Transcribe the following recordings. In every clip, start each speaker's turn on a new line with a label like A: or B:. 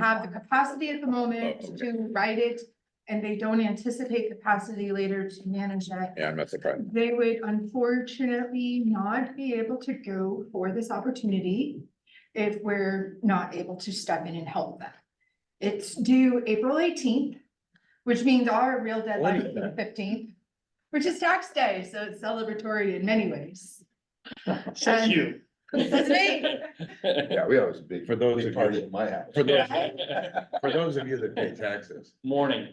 A: have the capacity at the moment to write it, and they don't anticipate capacity later to manage that.
B: Yeah, I'm not surprised.
A: They would unfortunately not be able to go for this opportunity if we're not able to step in and help them. It's due April eighteenth, which means our real deadline is the fifteenth, which is tax day, so it's celebratory in many ways.
C: Says
A: And-
C: you.
A: It's me.
B: Yeah, we always big, for those of
D: party
B: you,
D: at my house.
B: for those, for those of you that pay taxes.
C: Morning.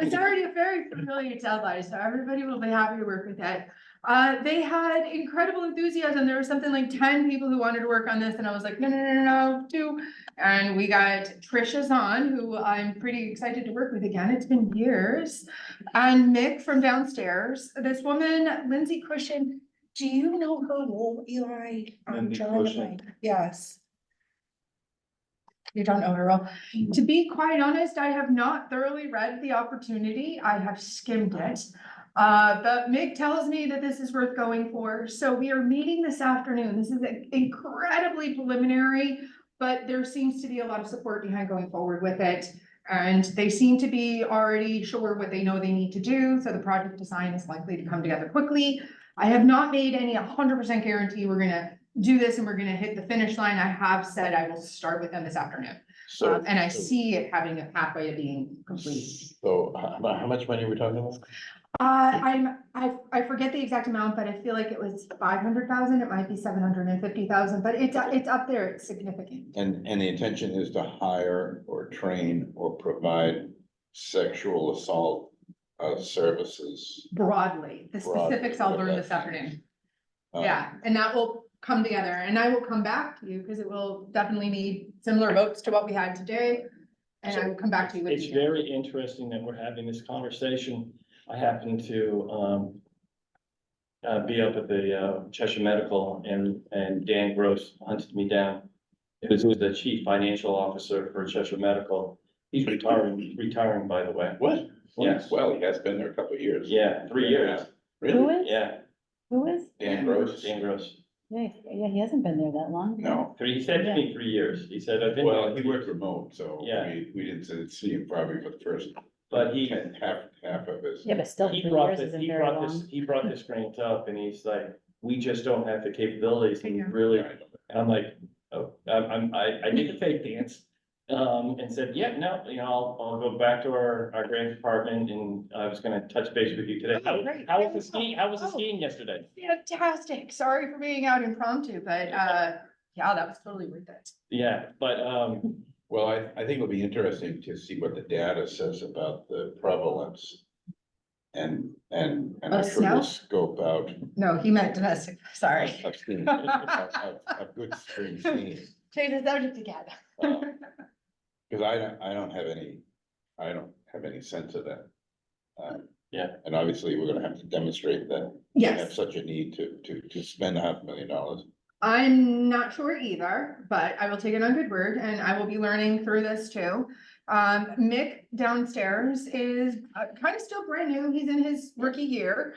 A: It's already a very familiar deadline, so everybody will be happy to work with it. Uh, they had incredible enthusiasm. There was something like ten people who wanted to work on this, and I was like, no, no, no, no, no, two. And we got Trisha's on, who I'm pretty excited to work with again. It's been years. And Mick from downstairs, this woman, Lindsay Cushion, do you know her, Eli? Um,
D: Lindsay
A: John,
D: Cushion.
A: Yes. You don't know her well. To be quite honest, I have not thoroughly read the opportunity. I have skimmed it. Uh, but Mick tells me that this is worth going for. So we are meeting this afternoon. This is incredibly preliminary, but there seems to be a lot of support behind going forward with it. And they seem to be already sure what they know they need to do, so the project design is likely to come together quickly. I have not made any hundred percent guarantee we're gonna do this and we're gonna hit the finish line. I have said I will start with them this afternoon.
D: So,
A: Um, And I see it having a pathway to being complete.
D: so how, how much money are we talking about?
A: Uh, I'm, I, I forget the exact amount, but I feel like it was five hundred thousand, it might be seven hundred and fifty thousand, but it's, it's up there, it's significant.
D: And, and the intention is to hire or train or provide sexual assault uh, services.
A: Broadly, the
D: Broadly,
A: specifics I'll learn this
D: okay.
A: afternoon,
D: uh,
A: yeah, and that will come together, and I will come back to you, because it will definitely need similar votes to what we had today. And I will come back to you with.
C: It's
A: detail.
C: very interesting that we're having this conversation. I happen to, um, uh, be up at the uh, Cheshire Medical and, and Dan Gross hunted me down. He was the chief financial officer for Cheshire Medical. He's retiring, retiring, by the way.
D: What?
C: Yes.
D: Well, he has been there a couple of years.
C: Yeah, three years.
E: Who
D: Really?
E: is?
C: Yeah.
E: Who is?
D: Dan Gross?
C: Dan Gross.
E: Nice. Yeah, he hasn't been there that long.
D: No.
C: Three, he said to me three years. He said, I've been.
D: Well, he worked remote, so
C: Yeah.
D: we, we didn't see him probably for the first
C: But he,
D: ten- half, half of his.
E: Yeah, but still,
C: He
E: three
C: brought
E: years
C: this,
E: isn't
C: he
E: very
C: brought this,
E: long.
C: he brought this grant up and he's like, we just don't have the capabilities
A: Yeah.
C: and really, and I'm like, oh, I'm, I'm, I, I did the fake dance. Um, and said, yeah, no, you know, I'll, I'll go back to our, our grant department and I was gonna touch base with you today.
A: Oh,
C: How,
A: great.
C: how
A: There
C: was
A: we
C: the
A: go.
C: skiing, how was the
A: Oh.
C: skiing yesterday?
A: Fantastic, sorry for being out impromptu, but, uh, yeah, that was totally worth it.
C: Yeah, but, um,
D: Well, I, I think it'll be interesting to see what the data says about the prevalence. And, and, and
A: Of
D: I'm sure
A: snow?
D: we'll scope out.
A: No, he meant domestic, sorry.
D: Of screen- of- of- of good spring scene, uh,
A: Change the subject again.
D: because I don't, I don't have any, I don't have any sense of that. Um,
C: Yeah.
D: And obviously, we're gonna have to demonstrate that. we Have
A: Yes,
D: such a need to, to, to spend a half million dollars.
A: I'm not sure either, but I will take it on good word and I will be learning through this too. Um, Mick downstairs is kind of still brand new. He's in his rookie year.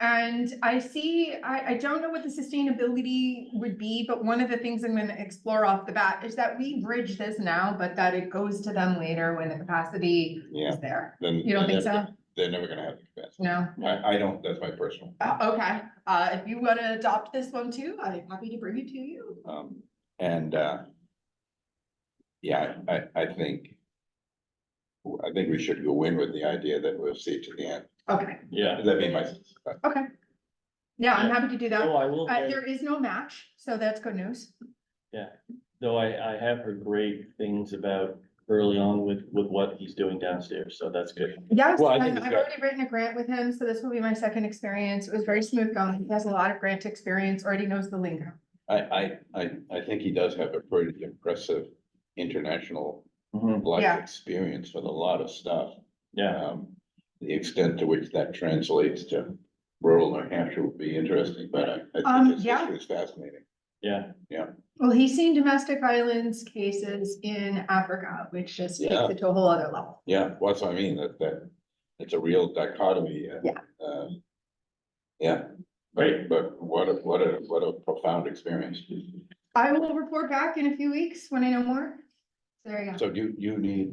A: And I see, I, I don't know what the sustainability would be, but one of the things I'm gonna explore off the bat is that we bridge this now, but that it goes to them later when the capacity
D: Yeah,
A: is there.
D: then.
A: You don't think
D: they're-
A: so?
D: They're never gonna have the capacity.
A: No?
D: I, I don't, that's my personal.
A: Uh, okay, uh, if you wanna adopt this one too, I'm happy to bring it to you.
D: Um, and, uh. Yeah, I, I think. I think we should go in with the idea that we'll see to the end.
A: Okay,
C: yeah.
D: That'd be my, uh,
A: okay. Yeah, I'm happy to do that.
C: Oh, I will.
A: Uh,
C: get-
A: there is no match, so that's good news.
C: Though I, I have heard great things about early on with, with what he's doing downstairs, so that's good.
A: Yes,
D: Well, I
A: and
D: think
A: I've
D: it's got-
A: already written a grant with him, so this will be my second experience. It was very smooth going. He has a lot of grant experience, already knows the lingo.
D: I, I, I, I think he does have a pretty impressive international
A: Yeah.
D: life experience with a lot of stuff.
C: Mm-hmm. Yeah,
D: Um, the extent to which that translates to rural New Hampshire would be interesting, but I, I
A: Um,
D: think his
A: yeah.
D: history is fascinating.
C: yeah,
A: Well, he's seen domestic violence cases in Africa, which just takes
D: Yeah.
A: it to a whole other level.
D: Yeah, well, that's what I mean, that, that, it's a real dichotomy. uh, uh, Yeah, but,
C: Great.
D: but what a, what a, what a profound experience.
A: I will report back in a few weeks when I know more. There you go.
D: So you, you need